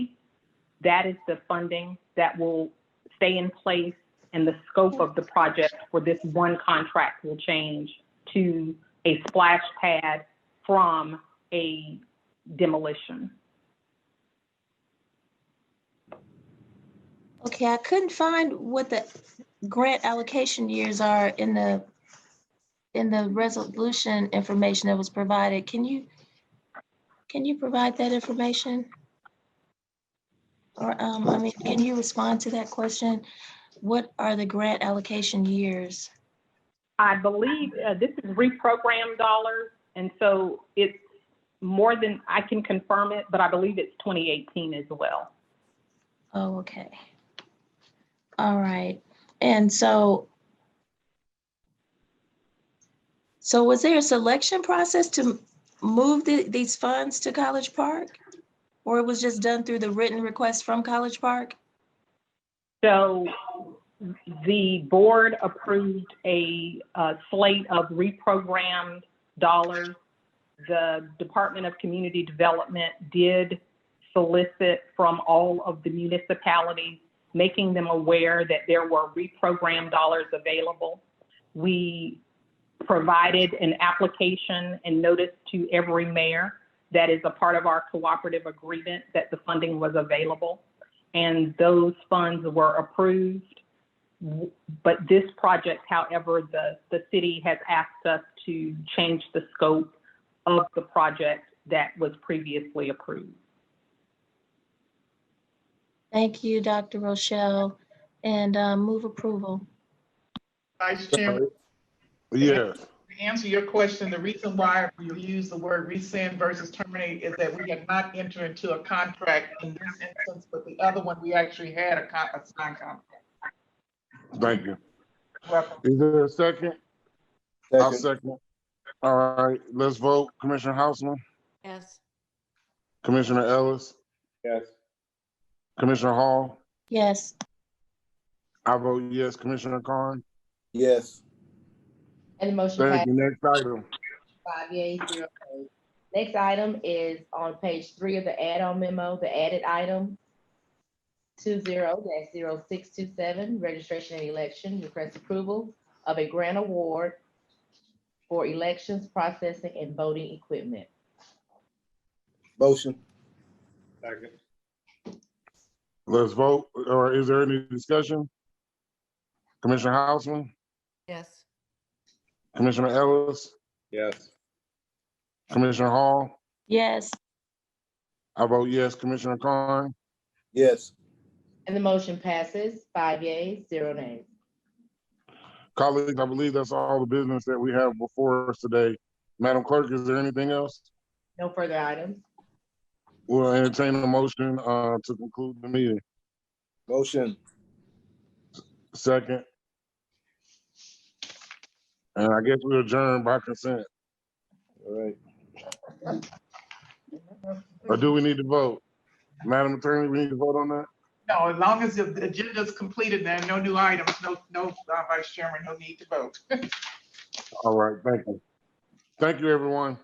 That is the funding that will stay in place and the scope of the project for this one contract will change to a splash pad from a demolition. Okay, I couldn't find what the grant allocation years are in the, in the resolution information that was provided. Can you, can you provide that information? Or, um, I mean, can you respond to that question? What are the grant allocation years? I believe uh, this is reprogrammed dollars, and so it's more than, I can confirm it, but I believe it's 2018 as well. Oh, okay. All right, and so so was there a selection process to move the, these funds to College Park? Or it was just done through the written request from College Park? So the board approved a uh, slate of reprogrammed dollars. The Department of Community Development did solicit from all of the municipalities, making them aware that there were reprogrammed dollars available. We provided an application and notice to every mayor that is a part of our cooperative agreement that the funding was available and those funds were approved. But this project, however, the, the city has asked us to change the scope of the project that was previously approved. Thank you, Dr. Rochelle, and uh, move approval. Vice Chairman, Yeah, to answer your question, the reason why we use the word rescind versus terminate is that we have not entered into a contract in this instance, but the other one, we actually had a con, a signed contract. thank you. Welcome. Is there a second? I'll Second. second. All right, let's vote. Commissioner Houseman, Yes. Commissioner Ellis, Yes. Commissioner Hall. Yes, I vote yes. Commissioner Khan, Yes. And the motion thank passed you. Next item. five yeas, zero nays. Next item is on page three of the add-on memo, the added item two zero dash zero six two seven, registration and election, request approval of a grant award for elections, processing, and voting equipment. Motion. Let's vote, or is there any discussion? Commissioner Houseman, Yes. Commissioner Ellis, Yes. Commissioner Hall. yes, I vote yes. Commissioner Khan, Yes. And the motion passes five yeas, zero nays. colleagues, I believe that's all the business that we have before us today. Madam Clerk, is there anything else? No further items. We'll entertain a motion, uh, to conclude the meeting. Motion. Second. And I guess we adjourn by consent, All right. or do we need to vote? Madam Attorney, we need to vote on that? No, as long as the agenda is completed, there are no new items, no, no, uh, Vice Chairman, no need to vote. All right, thank you. Thank you, everyone.